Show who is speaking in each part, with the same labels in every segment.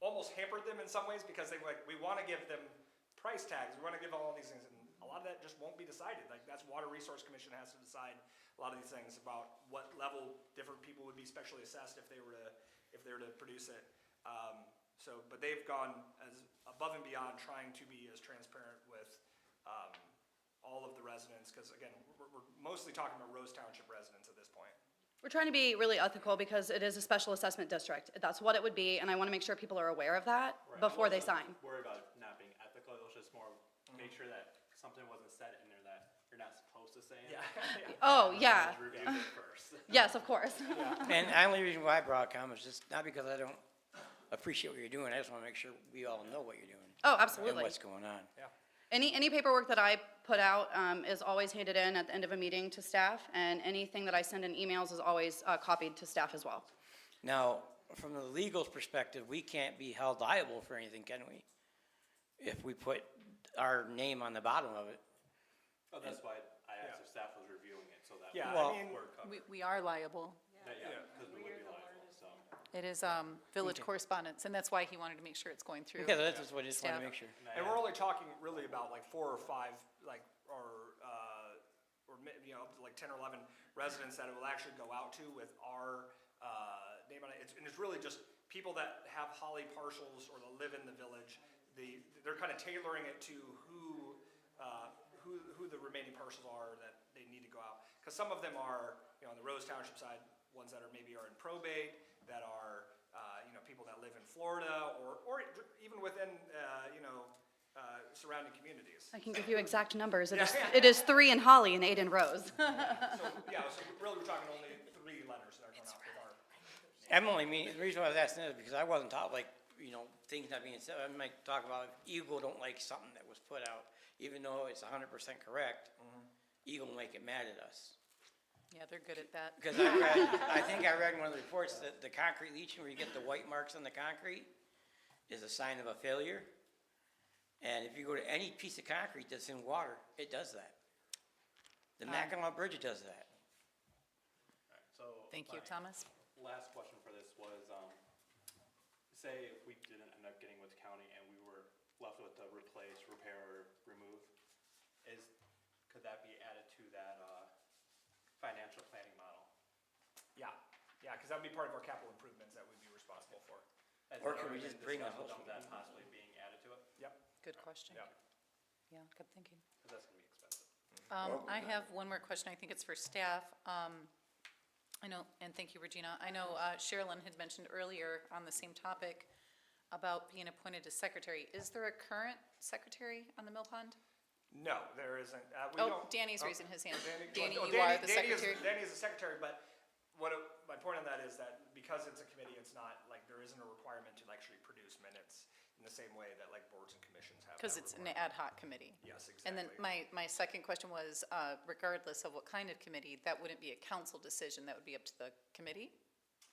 Speaker 1: almost hampered them in some ways because they were like, we want to give them price tags, we want to give all these things, and a lot of that just won't be decided. Like, that's Water Resource Commission has to decide a lot of these things about what level different people would be specially assessed if they were to, if they were to produce it. Um, so, but they've gone as above and beyond trying to be as transparent with, um, all of the residents, because again, we're, we're mostly talking about Rose Township residents at this point.
Speaker 2: We're trying to be really ethical because it is a special assessment district. That's what it would be, and I want to make sure people are aware of that
Speaker 3: Right.
Speaker 2: before they
Speaker 3: I wasn't
Speaker 2: sign.
Speaker 3: Worried about it not being ethical, it was just more, make sure that something wasn't said in there that you're not supposed to say. in there.
Speaker 2: Oh, yeah.
Speaker 3: Just Review it first.
Speaker 2: Yes, of course.
Speaker 4: And the only reason why I brought comments is just not because I don't appreciate what you're doing, I just want to make sure we all know what you're doing.
Speaker 2: Oh,
Speaker 4: And
Speaker 2: absolutely.
Speaker 4: what's going on.
Speaker 1: Yeah.
Speaker 2: Any, any paperwork that I put out um, is always handed in at the end of a meeting to staff, and anything that I send in emails is always uh, copied to staff as well.
Speaker 4: Now, from the legal perspective, we can't be held liable for anything, can we? If we put our name on the bottom of it.
Speaker 3: But Oh, that's why I asked if staff was reviewing it, so that.
Speaker 1: Yeah,
Speaker 4: Well-
Speaker 1: I mean,
Speaker 3: We're covered,
Speaker 5: We, we are liable.
Speaker 3: That- yeah, because we would be liable, so.
Speaker 5: It is, um, village
Speaker 4: Okay.
Speaker 5: correspondence, and that's why he wanted to make sure it's going through.
Speaker 4: Okay, that's just what I just want to
Speaker 5: Staff.
Speaker 4: make sure.
Speaker 1: and we're only talking really about like four or five, like, or, uh, or mi- you know, up to like ten or eleven residents that it will actually go out to with our, uh, name on it. It's, and it's really just people that have Holly parcels or that live in the village. The, they're kind of tailoring it to who, uh, who, who the remaining parcels are that they need to go out. Because some of them are, you know, on the Rose Township side, ones that are maybe are in probate, that are, uh, you know, people that live in Florida or, or even within, uh, you know, uh, surrounding communities.
Speaker 2: I can give you exact numbers. It is,
Speaker 1: Yeah.
Speaker 2: it is three in Holly and eight in Rose.
Speaker 1: So, yeah, so really we're talking only three letters that are going out with our.
Speaker 4: I'm only mean, the reason why I was asking that is because I wasn't taught like, you know, things not being said. I might talk about Eagle don't like something that was put out, even though it's hundred percent correct. Eagle will make it mad at us.
Speaker 5: Yeah, they're good at that.
Speaker 4: Because I read, I think I read in one of the reports that the concrete leaching, where you get the white marks on the concrete, is a sign of a failure. And if you go to any piece of concrete that's in water, it does that. The Mackinac Bridge does that.
Speaker 3: So.
Speaker 5: Thank you,
Speaker 3: my
Speaker 5: Thomas.
Speaker 3: Last question for this was, um, say if we didn't end up getting with the county and we were left with the replace, repair, or remove, is, could that be added to that, uh, financial planning model?
Speaker 1: Yeah, yeah, because that'd be part of our capital improvements that we'd be responsible for.
Speaker 3: Has
Speaker 4: Or
Speaker 3: that
Speaker 4: could we
Speaker 3: already
Speaker 4: just
Speaker 3: been
Speaker 4: bring the
Speaker 3: discussed about
Speaker 4: whole
Speaker 3: That
Speaker 4: thing?
Speaker 3: possibly being added to it,
Speaker 1: Yep,
Speaker 5: Good question.
Speaker 1: yep.
Speaker 5: Yeah, good thinking.
Speaker 3: because that's gonna be expensive.
Speaker 5: Um, I have one more question. I think it's for staff. Um, I know, and thank you, Regina. I know uh, Sherilyn had mentioned earlier on the same topic about being appointed as secretary. Is there a current secretary on the Mill Pond?
Speaker 1: No, there isn't. Uh, we
Speaker 5: Oh,
Speaker 1: don't-
Speaker 5: Danny's
Speaker 1: oh,
Speaker 5: raising his hand.
Speaker 1: Danny-
Speaker 5: Danny,
Speaker 1: oh,
Speaker 5: you are the
Speaker 1: Danny is-
Speaker 5: secretary.
Speaker 1: Danny is the secretary, but what, it- my point on that is that because it's a committee, it's not, like, there isn't a requirement to actually produce minutes in the same way that like boards and commissions have.
Speaker 5: Because
Speaker 1: that
Speaker 5: it's an
Speaker 1: requirement.
Speaker 5: ad hoc committee.
Speaker 1: Yes,
Speaker 5: And then
Speaker 1: exactly.
Speaker 5: my, my second question was, uh, regardless of what kind of committee, that wouldn't be a council decision, that would be up to the committee?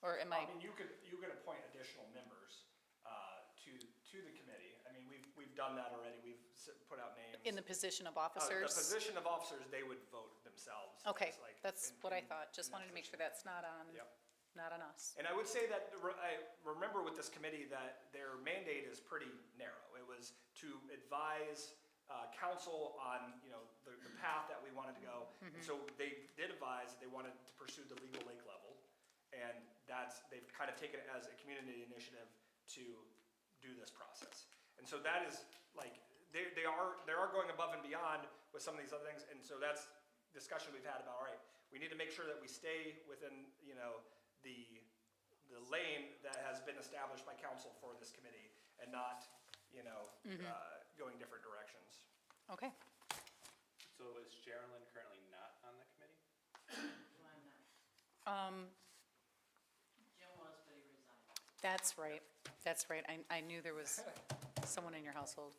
Speaker 5: Or am
Speaker 1: I
Speaker 5: I,
Speaker 1: mean, you could, you could appoint additional members, uh, to, to the committee. I mean, we've, we've done that already. We've s- put out names.
Speaker 5: in the position of
Speaker 1: Uh, The
Speaker 5: officers?
Speaker 1: position of officers, they would vote themselves.
Speaker 5: Okay,
Speaker 1: It's like-
Speaker 5: that's
Speaker 1: in-
Speaker 5: what I
Speaker 1: in-
Speaker 5: thought, just
Speaker 1: in that
Speaker 5: wanted to make sure
Speaker 1: position.
Speaker 5: that's not on,
Speaker 1: Yep.
Speaker 5: not on us.
Speaker 1: And I would say that, the re- I remember with this committee that their mandate is pretty narrow. It was to advise uh, council on, you know, the, the path that we wanted to go. And so they did advise that they wanted to pursue the legal lake level. And that's, they've kind of taken it as a community initiative to do this process. And so that is, like, they, they are, they are going above and beyond with some of these other things. And so that's discussion we've had about, all right, we need to make sure that we stay within, you know, the, the lane that has been established by council for this committee and not, you know, uh, going different directions.
Speaker 5: Okay,
Speaker 3: So is Sherilyn currently not on the committee?
Speaker 5: um,
Speaker 6: Jim was, but he resigned.
Speaker 5: that's right, that's right, I, I knew there was someone in your household.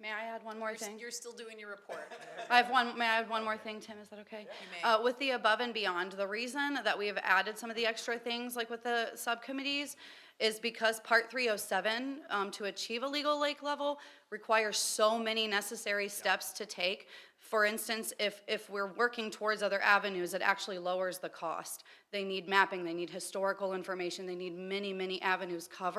Speaker 2: May I add one more
Speaker 5: You're s-
Speaker 2: thing?
Speaker 5: You're still doing your report.
Speaker 2: I have one, may I add one more thing, Tim, is that okay?
Speaker 5: You may.
Speaker 2: Uh, with the above and beyond, the reason that we have added some of the extra things, like with the subcommittees, is because part three oh seven, um, to achieve a legal lake level, requires so many necessary steps to take. For instance, if, if we're working towards other avenues, it actually lowers the cost. They need mapping, they need historical information, they need many, many avenues covered.